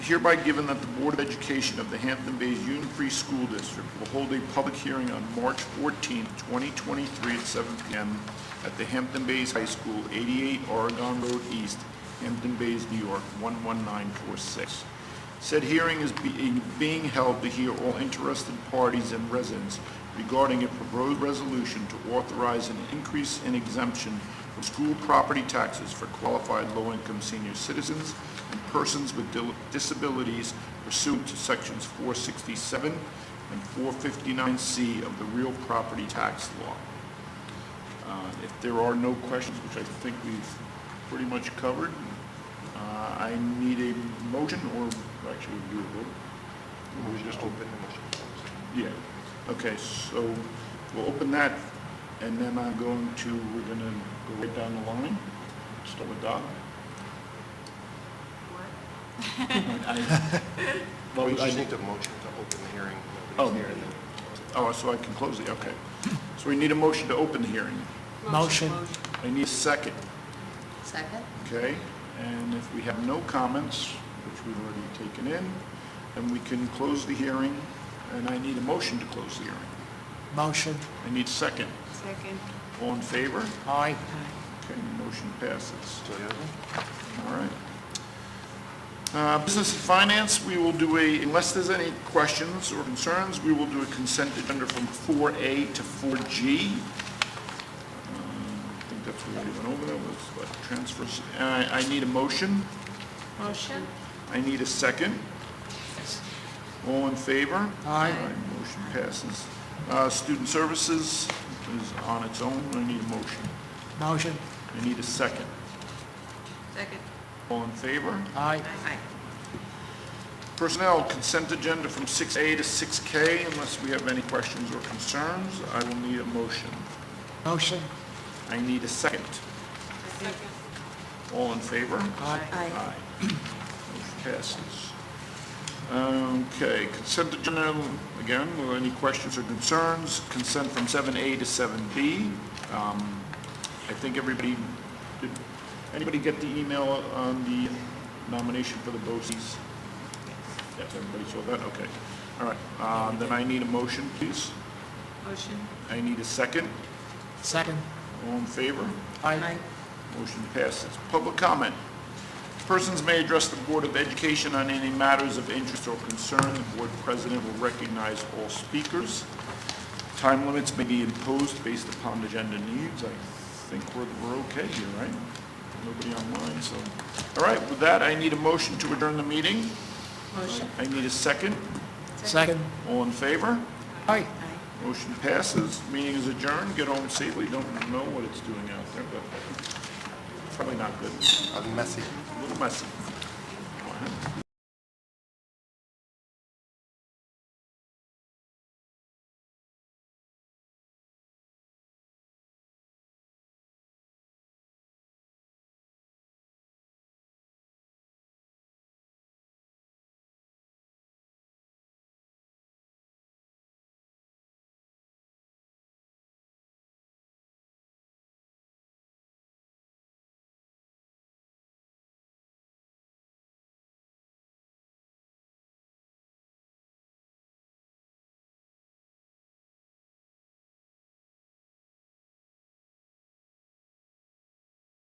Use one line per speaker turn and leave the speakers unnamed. hereby given that the Board of Education of the Hampton Bays Union Free School District will hold a public hearing on March 14, 2023, at 7 p.m. at the Hampton Bays High School, 88 Oregon Road East, Hampton Bays, New York, 11946. Said hearing is be- being held to hear all interested parties and residents regarding a proposed resolution to authorize an increase in exemption for school property taxes for qualified low-income senior citizens and persons with dil- disabilities pursuant to Sections 467 and 459C of the real property tax law. Uh, If there are no questions, which I think we've pretty much covered, uh, I need a motion, or actually, we do a vote.
We just open the motion.
Yeah, okay, so we'll open that, and then I'm going to, we're gonna go right down the line, start with Doc. I- Well,
We just
I-
need the motion to open the hearing.
Oh.
Nobody's here, and then close it.
Oh, so I can close it, okay. So we need a motion to open the hearing.
Motion.
I need a second,
Second?
okay? And if we have no comments, which we've already taken in, then we can close the hearing, and I need a motion to close the hearing.
Motion.
I need a second.
Second.
All in favor?
Aye.
Okay, motion passes.
So, yeah.
All right. Uh, Business and Finance, we will do a, unless there's any questions or concerns, we will do a consent agenda from 4A to 4G. Um, I think that's what we went over, that was what, transfers. I I need a motion.
Motion?
I need a second. All in favor?
Aye.
Motion passes. Uh, Student Services is on its own. I need a motion.
Motion.
I need a second.
Second.
All in favor?
Aye.
Aye.
Personnel consent agenda from 6A to 6K, unless we have any questions or concerns, I will need a motion.
Motion.
I need a second.
Second.
All in favor?
Aye.
Aye. Motion passes. Okay, consent agenda, again, were any questions or concerns? Consent from 7A to 7B. Um, I think everybody, did anybody get the email on the nomination for the BOCES? Yes, everybody saw that, okay. All right, uh, then I need a motion, please.
Motion?
I need a second.
Second.
All in favor?
Aye.
Motion passes. Public comment. Persons may address the Board of Education on any matters of interest or concern. The Board President will recognize all speakers. Time limits may be imposed based upon agenda needs. I think we're, we're okay here, right? Nobody online, so. All right, with that, I need a motion to adjourn the meeting.
Motion.
I need a second.
Second.
All in favor?
Aye.
Aye.
Motion passes. Meeting is adjourned. Get home safely. Don't know what it's doing out there, but probably not good.
Uh, Messy.
A little messy.